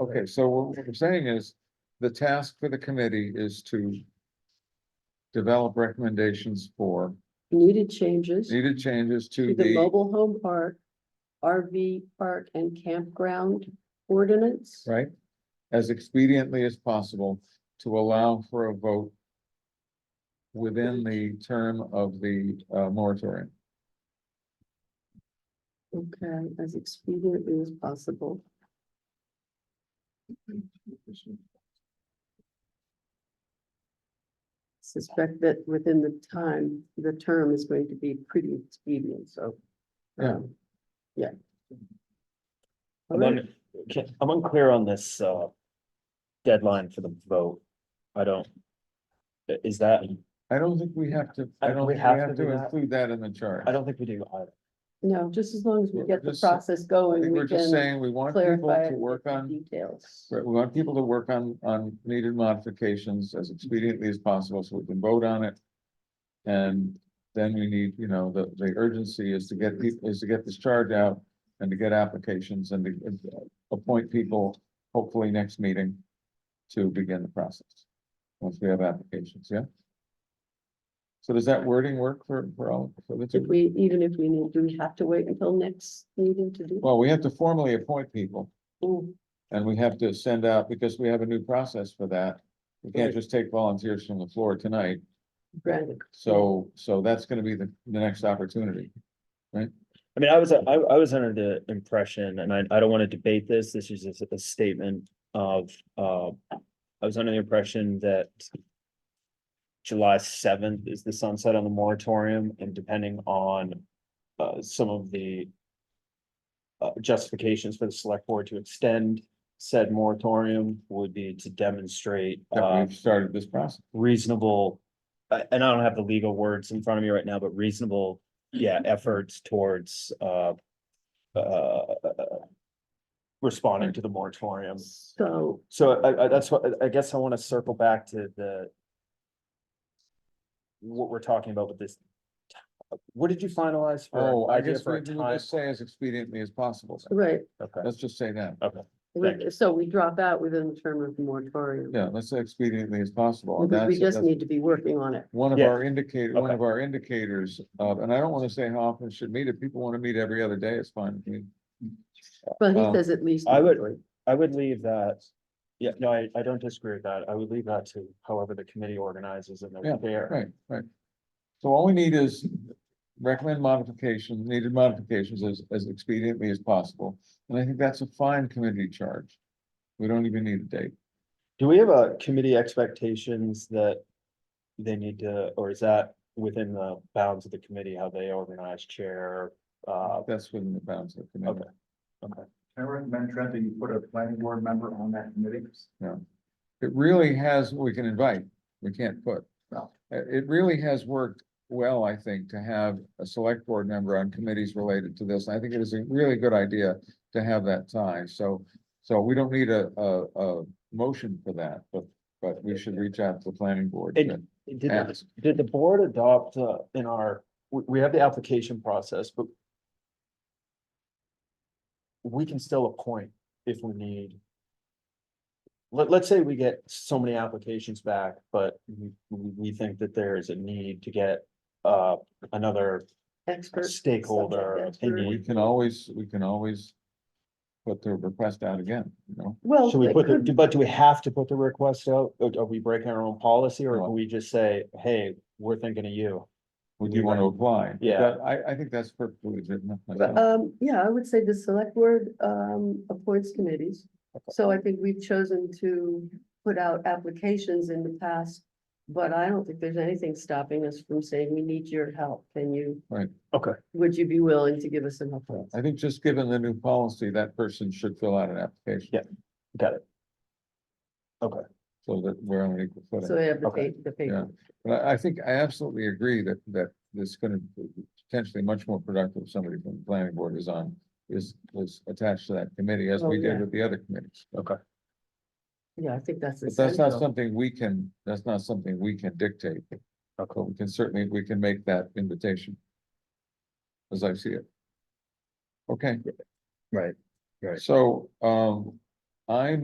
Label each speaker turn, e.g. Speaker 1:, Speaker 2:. Speaker 1: Okay, so what what I'm saying is, the task for the committee is to. Develop recommendations for
Speaker 2: needed changes to
Speaker 1: needed changes to
Speaker 2: the
Speaker 1: the,
Speaker 2: mobile home park, RV park and campground ordinance.
Speaker 1: right? As expediently as possible to allow for a vote. Within the term of the uh moratorium.
Speaker 2: Okay, as expediently as possible. Suspect that within the time, the term is going to be pretty expedient, so.
Speaker 1: Yeah.
Speaker 2: um, Yeah.
Speaker 3: I'm
Speaker 2: Alright.
Speaker 3: un- ca- I'm unclear on this, uh, deadline for the vote. I don't. i- Is that,
Speaker 1: I don't think we have to,
Speaker 3: I
Speaker 1: I
Speaker 3: don't
Speaker 1: don't
Speaker 3: think
Speaker 1: think we have to
Speaker 3: do that.
Speaker 1: include that in the chart.
Speaker 3: I don't think we do either.
Speaker 2: No, just as long as we
Speaker 1: We're
Speaker 2: get the
Speaker 1: just sa-
Speaker 2: process
Speaker 1: I
Speaker 2: going,
Speaker 1: think we're
Speaker 2: we
Speaker 1: just
Speaker 2: can
Speaker 1: saying, we want people
Speaker 2: clarify
Speaker 1: to
Speaker 2: it
Speaker 1: work
Speaker 2: with the
Speaker 1: on.
Speaker 2: details.
Speaker 1: Right, we want people to work on, on needed modifications as expediently as possible, so we can vote on it. And then we need, you know, the, the urgency is to get people, is to get this charge out and to get applications and to and to appoint people, hopefully next meeting. To begin the process, once we have applications, yeah? So does that wording work for, for all, for the
Speaker 2: If
Speaker 1: two?
Speaker 2: we, even if we need, do we have to wait until next meeting to do?
Speaker 1: Well, we have to formally appoint people.
Speaker 2: Mm,
Speaker 1: And we have to send out, because we have a new process for that. We can't
Speaker 3: Right.
Speaker 1: just take volunteers from the floor tonight,
Speaker 2: Granted,
Speaker 1: so, so that's gonna be the, the next opportunity.
Speaker 3: I mean, I was, I, I was under the impression, and I, I don't want to debate this, this is just a statement of, uh, I was under the impression that July seventh is the sunset on the moratorium and depending on, uh, some of the uh, justifications for the select board to extend said moratorium would be to demonstrate,
Speaker 1: That
Speaker 3: uh,
Speaker 1: we've started this process.
Speaker 3: reasonable, I- and I don't have the legal words in front of me right now, but reasonable, yeah,
Speaker 1: Mm-hmm.
Speaker 3: efforts towards, uh, uh, responding to the moratorium.
Speaker 2: So,
Speaker 3: So I, I, that's what, I- I guess I want to circle back to the what we're talking about with this. What did you finalize for?
Speaker 1: Oh, I
Speaker 3: idea
Speaker 1: guess
Speaker 3: for a
Speaker 1: we can
Speaker 3: time?
Speaker 1: just say as expediently as possible.
Speaker 2: right,
Speaker 3: Okay,
Speaker 1: Let's just say that.
Speaker 3: okay.
Speaker 2: we-
Speaker 3: Thank
Speaker 2: so we drop out within the term of the moratorium.
Speaker 1: Yeah, let's say expediently as possible. and
Speaker 2: Because we
Speaker 1: that's-
Speaker 2: just
Speaker 1: that's-
Speaker 2: need to be working on it.
Speaker 1: One of
Speaker 3: Yeah.
Speaker 1: our indicator, one
Speaker 3: Okay.
Speaker 1: of our indicators of, and I don't wanna say how often it should meet. If people wanna meet every other day, it's fine. with me.
Speaker 2: But he
Speaker 1: Um,
Speaker 2: says at least.
Speaker 3: I would-
Speaker 2: monthly.
Speaker 3: I would leave that, yeah, no, I, I don't disagree with that. I would leave that to however the committee organizes and
Speaker 1: Yeah,
Speaker 3: they're there.
Speaker 1: Right, right. So all we need is recommend modifications, needed modifications as, as expediently as possible. And I think that's a fine committee charge. We don't even need a date.
Speaker 3: Do we have a committee expectations that they need to, or is that within the bounds of the committee, how they organize chair? Uh,
Speaker 1: That's within the bounds of the committee.
Speaker 3: Okay. okay,
Speaker 4: I recommend Trent that you put a planning board member on that committee.
Speaker 1: It really has, we can invite, we can't put.
Speaker 4: No.
Speaker 1: Uh, It really has worked well, I think, to have a select board member on committees related to this. I think it is a really good idea to have that tie. So, so we don't need a, a, a motion for that, but, but we should reach out to the planning board.
Speaker 3: And- Did, the-
Speaker 1: Ask.
Speaker 3: did the board adopt uh, in our, we, we have the application process, but we can still appoint if we need. Let, let's say we get so many applications back, but we, we we think that there is a need to get uh, another
Speaker 2: Expert.
Speaker 3: stakeholder
Speaker 2: subject
Speaker 1: We
Speaker 3: opinion.
Speaker 1: can always, we can always put the request out again, you know?
Speaker 2: Well,
Speaker 3: Should we
Speaker 2: it
Speaker 3: put,
Speaker 2: could-
Speaker 3: the- but do we have to put the request out? Or Are we breaking our own policy or
Speaker 1: No.
Speaker 3: can we just say, hey, we're thinking of you?
Speaker 1: Would you want to apply?
Speaker 3: Yeah.
Speaker 1: That- I, I think that's perfectly legitimate.
Speaker 2: But, um, yeah, I would say the select board, um, appoints committees. So I think we've chosen to put out applications in the past. But I don't think there's anything stopping us from saying, we need your help. Can you?
Speaker 1: Right.
Speaker 3: Okay.
Speaker 2: Would you be willing to give us some help?
Speaker 1: I think just given the new policy, that person should fill out an application.
Speaker 3: Yeah. Got it.
Speaker 1: So that we're on an equal
Speaker 2: So
Speaker 1: footing.
Speaker 2: they have the
Speaker 3: Okay.
Speaker 2: pa- the paper.
Speaker 1: Yeah. But I, I think I absolutely agree that, that this is gonna be potentially much more productive, if somebody from the planning board is on, is, is attached to that committee as
Speaker 2: Oh,
Speaker 1: we
Speaker 2: yeah.
Speaker 1: did with the other committees.
Speaker 3: Okay.
Speaker 2: Yeah, I think that's.
Speaker 1: But that's not
Speaker 2: essential.
Speaker 1: something we can, that's not something we can dictate. But we can certainly, we can make that invitation. As I see it. Okay.
Speaker 3: Right, right.
Speaker 1: So, um, I'm